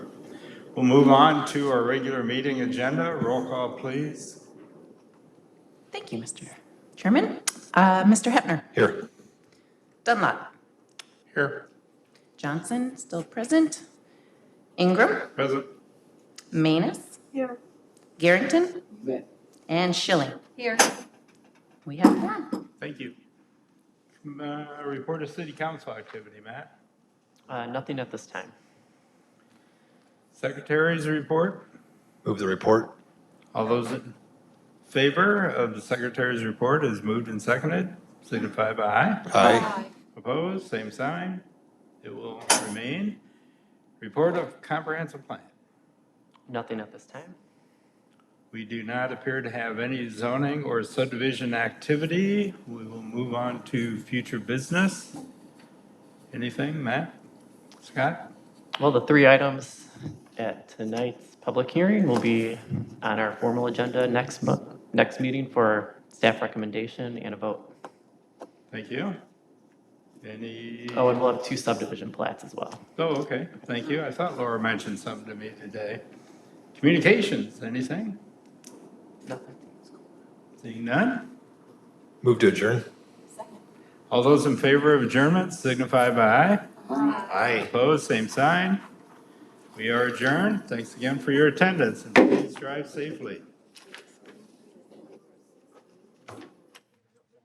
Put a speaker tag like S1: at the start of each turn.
S1: We'll move on to our regular meeting agenda. Roll call, please.
S2: Thank you, Mr. Chairman. Uh, Mr. Hepner,
S1: Here.
S2: Dunlop,
S1: Here.
S2: Johnson, still present. Ingram,
S1: Present.
S2: Manus. Garrington. And Schilling.
S3: Here.
S2: We have one.
S1: Thank you. Uh, Report of city council activity, Matt.
S4: Uh, Nothing at this time.
S1: Secretary's report.
S5: Move the report.
S1: All those in favor of the secretary's report is moved and seconded, signify by aye.
S5: Aye.
S1: Opposed, same sign. It will remain. Report of comprehensive plan.
S4: Nothing at this time.
S1: We do not appear to have any zoning or subdivision activity. We will move on to future business. Anything, Matt? Scott?
S4: Well, the three items at tonight's public hearing will be on our formal agenda next month, next meeting for staff recommendation and a vote.
S1: Thank you. Any?
S4: Oh, and we'll have two subdivision plats as well.
S1: Oh, okay, thank you. I thought Laura mentioned something to me today. Communications, anything?
S4: Nothing.
S1: Seeing none?
S5: Move to adjourn.
S1: All those in favor of adjournment signify by aye.
S5: Aye.
S1: Opposed, same sign. We are adjourned. Thanks again for your attendance and please drive safely.